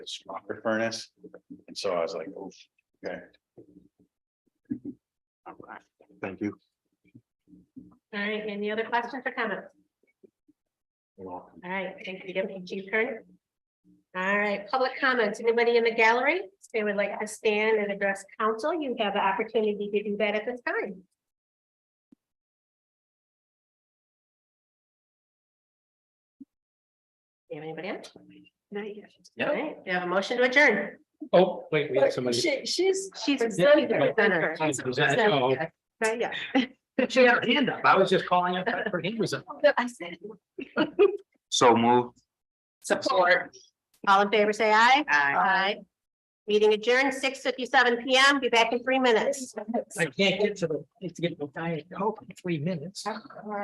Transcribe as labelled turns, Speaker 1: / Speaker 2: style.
Speaker 1: smoker furnace. And so I was like, oh, okay. Thank you.
Speaker 2: All right, any other questions or comments? All right, thank you, Deputy Chief Kern. All right, public comments. Anybody in the gallery? If they would like to stand and address council, you have the opportunity to do that at this time. Do you have anybody else?
Speaker 3: No.
Speaker 2: All right, we have a motion to adjourn.
Speaker 3: Oh, wait, we have somebody.
Speaker 4: She, she's,
Speaker 2: She's.
Speaker 3: Is that- oh,
Speaker 4: not yet.
Speaker 3: She had her hand up. I was just calling up. Her hand was up.
Speaker 4: I said.
Speaker 5: So move.
Speaker 4: Support.
Speaker 2: All in favor, say aye.
Speaker 4: Aye.
Speaker 2: Meeting adjourned, six fifty-seven PM. Be back in three minutes.
Speaker 3: I can't get to the, it's getting tired. Oh, three minutes.